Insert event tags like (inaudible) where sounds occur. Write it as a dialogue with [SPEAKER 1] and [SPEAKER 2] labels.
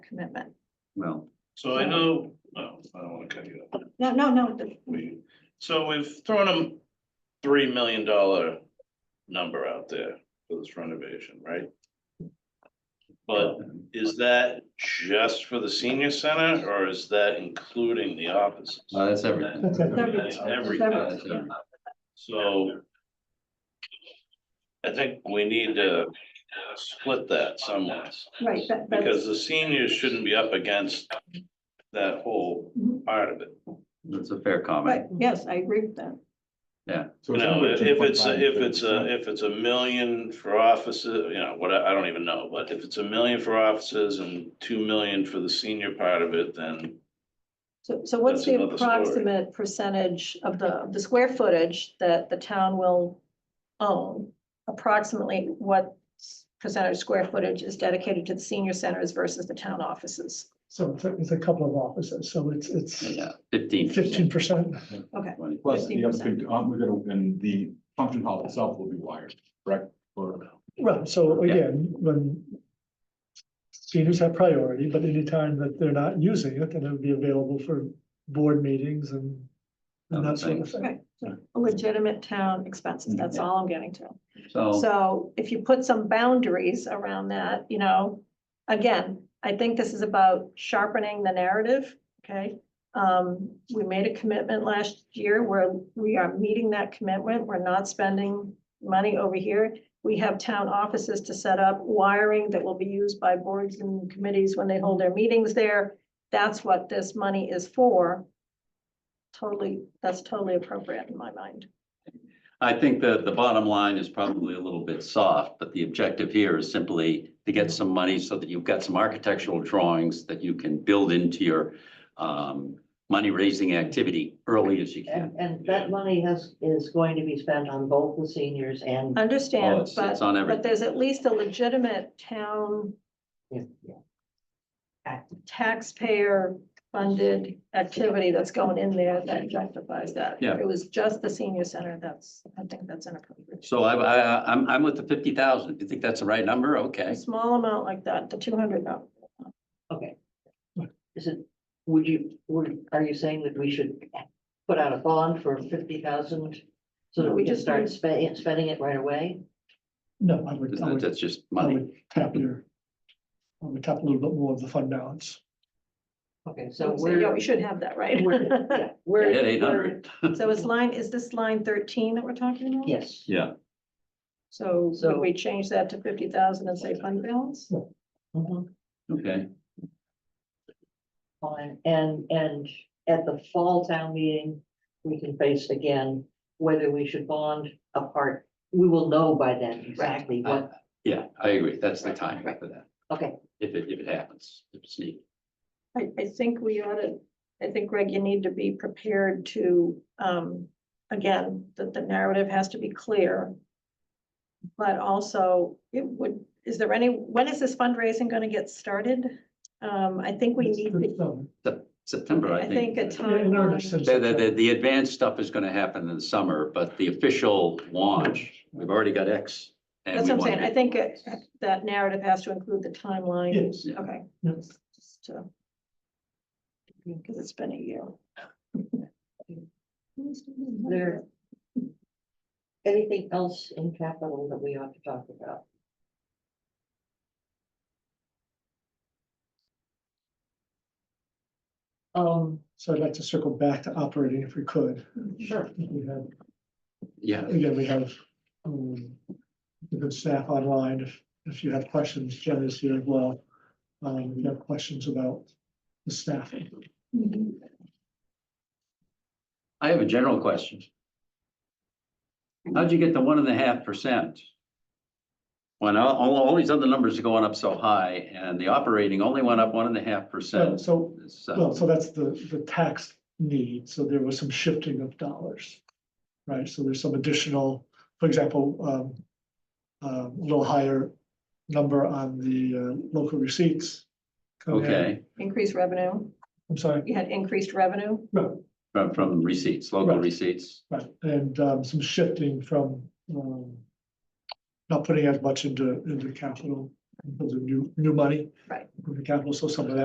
[SPEAKER 1] commitment.
[SPEAKER 2] Well,
[SPEAKER 3] So I know, no, I don't wanna cut you off.
[SPEAKER 1] No, no, no,
[SPEAKER 3] We, so we've thrown a three million dollar number out there for this renovation, right? But is that just for the senior center or is that including the offices?
[SPEAKER 2] uh, that's everything.
[SPEAKER 4] That's everything.
[SPEAKER 3] That's everything. So. I think we need to split that somewhat.
[SPEAKER 1] right, that, that's,
[SPEAKER 3] Because the seniors shouldn't be up against that whole part of it.
[SPEAKER 2] That's a fair
[SPEAKER 1] right,
[SPEAKER 2] comment.
[SPEAKER 1] yes, I agree with that.
[SPEAKER 3] You
[SPEAKER 4] So it's
[SPEAKER 3] know,
[SPEAKER 4] anywhere
[SPEAKER 3] if it's,
[SPEAKER 4] 2.5,
[SPEAKER 3] a- if it's, a-
[SPEAKER 4] 30%.
[SPEAKER 3] if it's a million for offices, you know, what, I I don't even know, but if it's a million for offices and two million for the senior part of it, then.
[SPEAKER 1] So, so what's
[SPEAKER 3] That's
[SPEAKER 1] the
[SPEAKER 3] another story.
[SPEAKER 1] approximate percentage of the, of the square footage that the town will own? Approximately what s- percentage square footage is dedicated to the senior centers versus the town offices?
[SPEAKER 5] So it's a- it's a couple of offices, so it's, it's
[SPEAKER 2] Yeah, fifteen.
[SPEAKER 5] fifteen percent.
[SPEAKER 1] Okay,
[SPEAKER 4] Plus, the other
[SPEAKER 1] 15%.
[SPEAKER 4] thing, um, we're gonna, and the function hall itself will be wired, correct? Or,
[SPEAKER 5] Well, so again, when seniors have priority, but anytime that they're not using it, then it would be available for board meetings and and
[SPEAKER 2] Other
[SPEAKER 5] that sort of
[SPEAKER 2] things.
[SPEAKER 5] thing.
[SPEAKER 1] okay, so legitimate town expenses, that's
[SPEAKER 3] Mm-hmm.
[SPEAKER 1] all I'm getting to.
[SPEAKER 2] So,
[SPEAKER 1] So if you put some boundaries around that, you know, again, I think this is about sharpening the narrative, okay? Um, we made a commitment last year where we are meeting that commitment. We're not spending money over here. We have town offices to set up wiring that will be used by boards and committees when they hold their meetings there. That's what this money is for. Totally, that's totally appropriate in my mind.
[SPEAKER 2] I think that the bottom line is probably a little bit soft, but the objective here is simply to get some money so that you've got some architectural drawings that you can build into your um, money raising activity early as you can.
[SPEAKER 6] And, and that money has, is going to be spent on both the seniors and.
[SPEAKER 1] Uh,
[SPEAKER 2] Oh,
[SPEAKER 1] Understand,
[SPEAKER 2] it's-
[SPEAKER 1] but.
[SPEAKER 2] It's on
[SPEAKER 1] But
[SPEAKER 2] everything.
[SPEAKER 1] there's at least a legitimate town
[SPEAKER 6] Yeah, yeah.
[SPEAKER 1] taxpayer funded activity that's going in there that justifies that.
[SPEAKER 2] Yeah.
[SPEAKER 1] It was just the senior center, that's, I think that's inappropriate.
[SPEAKER 2] So I, I, I'm, I'm with the fifty thousand. If you think that's the right number,
[SPEAKER 1] A
[SPEAKER 2] okay.
[SPEAKER 1] small amount like that, the two hundred, no,
[SPEAKER 6] Okay. Is it, would you, would, are you saying that we should put out a bond for fifty thousand? So that
[SPEAKER 1] We
[SPEAKER 6] we can
[SPEAKER 1] just need-
[SPEAKER 6] start spending, spending it right away?
[SPEAKER 5] No, I would, I would,
[SPEAKER 2] That's just
[SPEAKER 5] I
[SPEAKER 2] money.
[SPEAKER 5] would tap your, I would tap a little bit more of the fund balance.
[SPEAKER 6] Okay, so
[SPEAKER 1] so yeah,
[SPEAKER 6] we're.
[SPEAKER 1] we should have that, right?
[SPEAKER 6] we're- yeah, We're.
[SPEAKER 2] (laughs) Hit eight hundred.
[SPEAKER 1] So is line, is this line thirteen that we're talking
[SPEAKER 6] we're-
[SPEAKER 1] about?
[SPEAKER 6] Yes,
[SPEAKER 2] Yeah,
[SPEAKER 1] So
[SPEAKER 6] So-
[SPEAKER 1] could we change that to fifty thousand and say fund balance?
[SPEAKER 6] mhm,
[SPEAKER 2] okay.
[SPEAKER 6] fine, and, and at the fall town meeting, we can face again whether we should bond apart. We will know by then exactly what
[SPEAKER 2] Yeah, I agree. That's the time for that.
[SPEAKER 6] Okay.
[SPEAKER 2] If it, if it happens, if it's needed.
[SPEAKER 1] I, I think we ought to, I think, Greg, you need to be prepared to, um, again, that the narrative has to be clear. But also, it would, is there any, when is this fundraising gonna get started? Um, I think we need,
[SPEAKER 5] Good
[SPEAKER 1] to-
[SPEAKER 5] summer.
[SPEAKER 2] Sep- September,
[SPEAKER 1] I think a
[SPEAKER 5] Yeah, in earnest
[SPEAKER 1] timeline.
[SPEAKER 5] in
[SPEAKER 2] The, the, the,
[SPEAKER 5] September.
[SPEAKER 2] the advanced stuff is gonna happen in the summer, but the official launch, we've already got X. and
[SPEAKER 1] That's
[SPEAKER 2] we
[SPEAKER 1] what I'm
[SPEAKER 2] wanna
[SPEAKER 1] saying. I
[SPEAKER 2] get-
[SPEAKER 1] think it- that narrative has to include the timeline.
[SPEAKER 5] Yes,
[SPEAKER 2] Yeah.
[SPEAKER 1] Okay.
[SPEAKER 5] yes.
[SPEAKER 1] just to- Because it's been a year.
[SPEAKER 6] There- Anything else in capital that we ought to talk about? Um,
[SPEAKER 5] So I'd like to circle back to operating if we could.
[SPEAKER 6] sure,
[SPEAKER 5] We have
[SPEAKER 2] Yeah,
[SPEAKER 5] Again, we have um, the good staff online. If, if you have questions, Jen is here as well. Um, if you have questions about the staffing.
[SPEAKER 1] Mm-hmm.
[SPEAKER 2] I have a general question. How'd you get to one and a half percent? When all, all, all these other numbers are going up so high and the operating only went up one and a half
[SPEAKER 5] So,
[SPEAKER 2] percent.
[SPEAKER 5] so,
[SPEAKER 2] It's, uh,
[SPEAKER 5] well, so that's the, the tax need. So there was some shifting of dollars. Right? So there's some additional, for example, um, um, a little higher number on the uh, local receipts. coming in.
[SPEAKER 2] Okay,
[SPEAKER 1] Increased revenue,
[SPEAKER 5] I'm sorry,
[SPEAKER 1] you had increased revenue?
[SPEAKER 5] no,
[SPEAKER 2] from, from receipts, local
[SPEAKER 5] Right.
[SPEAKER 2] receipts.
[SPEAKER 5] Right, and um, some shifting from um. Not putting as much into into capital, into new new money.
[SPEAKER 1] Right.
[SPEAKER 5] Into capital, so some of that